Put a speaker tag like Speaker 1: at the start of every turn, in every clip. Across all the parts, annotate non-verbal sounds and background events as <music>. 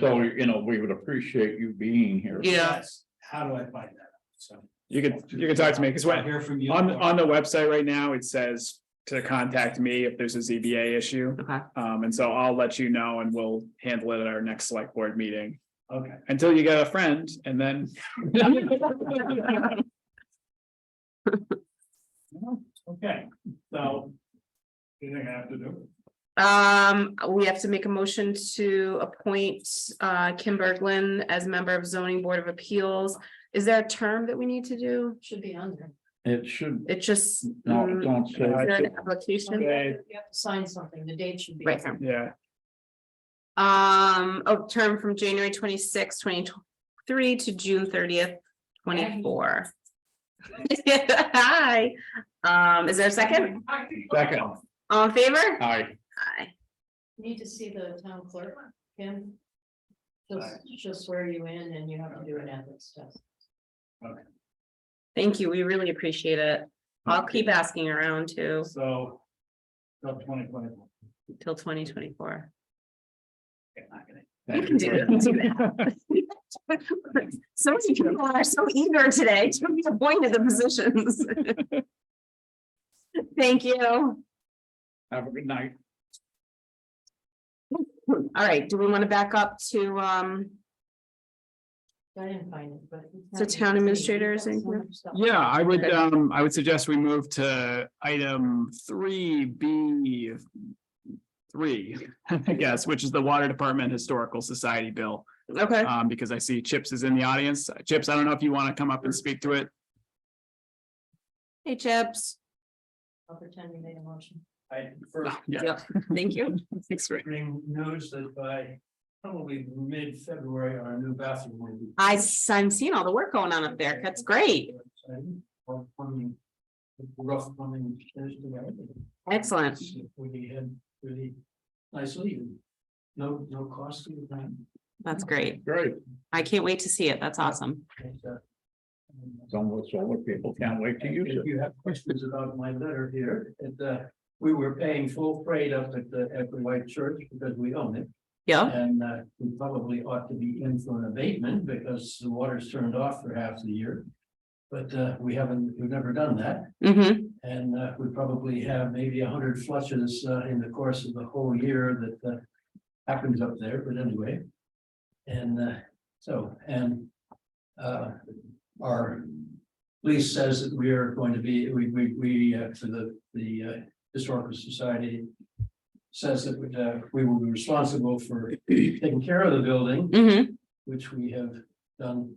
Speaker 1: So, you know, we would appreciate you being here.
Speaker 2: Yeah,
Speaker 3: That's- How do I find that? out? So.
Speaker 4: You could, you could talk to me, because
Speaker 3: I'll
Speaker 4: when,
Speaker 3: Hear from you.
Speaker 4: on, on the website right now, it says to contact me if there's a ZBA issue.
Speaker 2: okay,
Speaker 4: Um, and so I'll let you know and we'll handle it at our next select board meeting
Speaker 3: Okay,
Speaker 4: until you get a friend and then.
Speaker 3: okay, so. Anything I have to do?
Speaker 2: um, we have to make a motion to appoint uh Kim Berglund as member of zoning board of appeals. Is there a term that we need to do?
Speaker 5: Should be under.
Speaker 1: It should,
Speaker 2: It just.
Speaker 1: no,
Speaker 2: mm,
Speaker 1: don't
Speaker 2: Is
Speaker 1: say,
Speaker 2: there an application?
Speaker 4: Okay.
Speaker 5: You have to sign something, the date should be.
Speaker 2: Right here.
Speaker 4: Yeah,
Speaker 2: Um, oh, term from January twenty sixth, twenty three to June thirtieth, twenty four. <laughs> Hi, um, is there a second?
Speaker 1: second,
Speaker 2: All in favor?
Speaker 1: aye,
Speaker 2: Aye.
Speaker 5: Need to see the town clerk, Kim. She'll, she'll swear you in and you have to do an ethics test.
Speaker 2: Thank you. We really appreciate it. I'll keep asking around too
Speaker 3: So. Till twenty twenty.
Speaker 2: till twenty twenty four. You
Speaker 1: thank
Speaker 2: can do
Speaker 1: you.
Speaker 2: it. You can do that.
Speaker 3: <laughs>
Speaker 2: So many people are so eager today to be appointed the positions.
Speaker 3: <laughs>
Speaker 2: Thank you.
Speaker 1: Have a good night.
Speaker 2: All right, do we want to back up to um,
Speaker 5: I didn't find it, but.
Speaker 2: So town administrators and-
Speaker 4: yeah, I would, um, I would suggest we move to item three B. Three, <laughs> I guess, which is the Water Department Historical Society bill.
Speaker 2: okay,
Speaker 4: Um, because I see Chips is in the audience. Chips, I don't know if you want to come up and speak to it.
Speaker 2: hey Chips,
Speaker 4: uh,
Speaker 5: I'll pretend you made a motion.
Speaker 3: I first
Speaker 4: Yeah,
Speaker 2: thank you.
Speaker 4: thanks, Rick.
Speaker 3: bring news that by probably mid-February, our new bathroom will be.
Speaker 2: I, s- I'm seeing all the work going on up there. That's great.
Speaker 3: Or plumbing, Rough plumbing. finished and everything.
Speaker 2: Excellent.
Speaker 3: We had really nicely, no, no cost to the town.
Speaker 2: That's great.
Speaker 1: Great,
Speaker 2: I can't wait to see it. That's awesome.
Speaker 3: And, uh, and, uh,
Speaker 1: some of us older people can't wait to use
Speaker 3: If
Speaker 1: it.
Speaker 3: you have questions about my letter here, it, uh, we were paying full freight up at the, at the White Church because we own it.
Speaker 2: Yeah,
Speaker 3: And, uh, we probably ought to be in for an abatement because the water's turned off for half the year. But, uh, we haven't, we've never done that.
Speaker 2: mm-hmm,
Speaker 3: And uh, we probably have maybe a hundred flushes uh, in the course of the whole year that uh, happens up there, but anyway. And uh, so, and uh, our lease says that we are going to be, we, we, we, uh, for the, the uh, Historical Society says that we, uh, we will be responsible for taking care of the building
Speaker 2: mm-hmm.
Speaker 3: which we have done.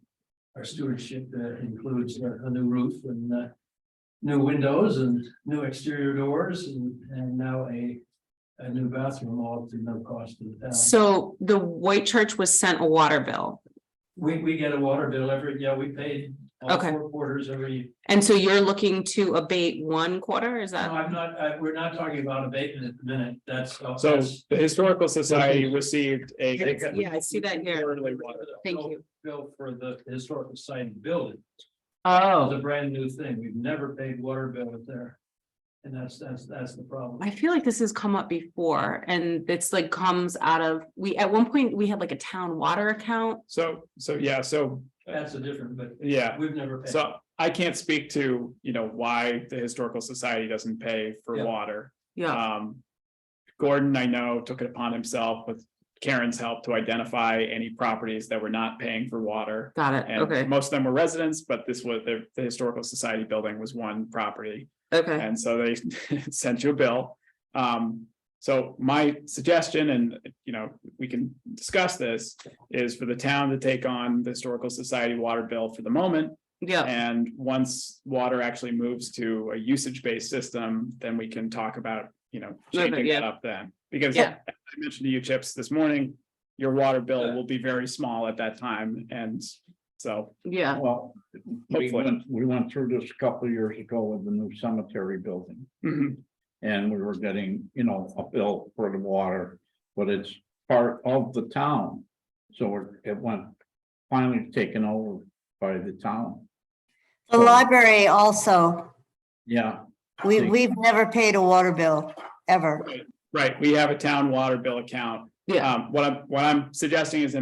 Speaker 3: Our stewardship uh, includes a a new roof and uh, new windows and new exterior doors and, and now a, a new bathroom all to no cost to the town.
Speaker 2: So the White Church was sent a water bill.
Speaker 3: We, we get a water bill every, yeah, we paid all
Speaker 2: Okay.
Speaker 3: four quarters every,
Speaker 2: And so you're looking to abate one quarter, is
Speaker 3: no,
Speaker 4: Uh,
Speaker 2: that?
Speaker 3: I'm not, I, we're not talking about abatement at the minute, that's.
Speaker 4: So the Historical Society received a.
Speaker 2: Yeah, I see that here.
Speaker 4: Quarterly water.
Speaker 2: Thank you.
Speaker 3: Bill for the historical society building. It's
Speaker 2: Oh,
Speaker 3: a brand new thing. We've never paid water bill up there. And that's, that's, that's the problem.
Speaker 2: I feel like this has come up before and it's like comes out of, we, at one point, we had like a town water account.
Speaker 4: So, so, yeah, so,
Speaker 3: That's a different, but
Speaker 4: yeah,
Speaker 3: we've never paid.
Speaker 4: so I can't speak to, you know, why the Historical Society doesn't pay for
Speaker 3: Yeah.
Speaker 4: water.
Speaker 2: Yeah,
Speaker 4: Um. Gordon, I know, took it upon himself with Karen's help to identify any properties that were not paying for water.
Speaker 2: got it.
Speaker 4: And
Speaker 2: Okay,
Speaker 4: most of them were residents, but this was, the, the Historical Society building was one property.
Speaker 2: okay.
Speaker 4: And so they <laughs> sent you a bill. Um, so my suggestion, and you know, we can discuss this, is for the town to take on the Historical Society water bill for the moment.
Speaker 2: Yeah,
Speaker 4: And once water actually moves to a usage-based system, then we can talk about, you know,
Speaker 2: Okay,
Speaker 4: changing that
Speaker 2: yeah.
Speaker 4: up then. Because
Speaker 2: Yeah.
Speaker 4: I mentioned to you, Chips, this morning, your water bill
Speaker 3: Yeah.
Speaker 4: will be very small at that time. And so, <clears throat>
Speaker 2: yeah,
Speaker 1: Well, we
Speaker 4: Hopefully.
Speaker 1: went, we went through this a couple of years ago with the new cemetery building.
Speaker 4: mhm,
Speaker 1: And we were getting, you know, a bill for the water, but it's part of the town. So it- it went finally taken over by the town.
Speaker 6: The library also,
Speaker 1: Yeah,
Speaker 6: we,
Speaker 1: Thank-
Speaker 6: we've never paid a water bill, ever.
Speaker 4: right, we have a town water bill account.
Speaker 2: yeah.
Speaker 4: Um, what I'm, what I'm suggesting is in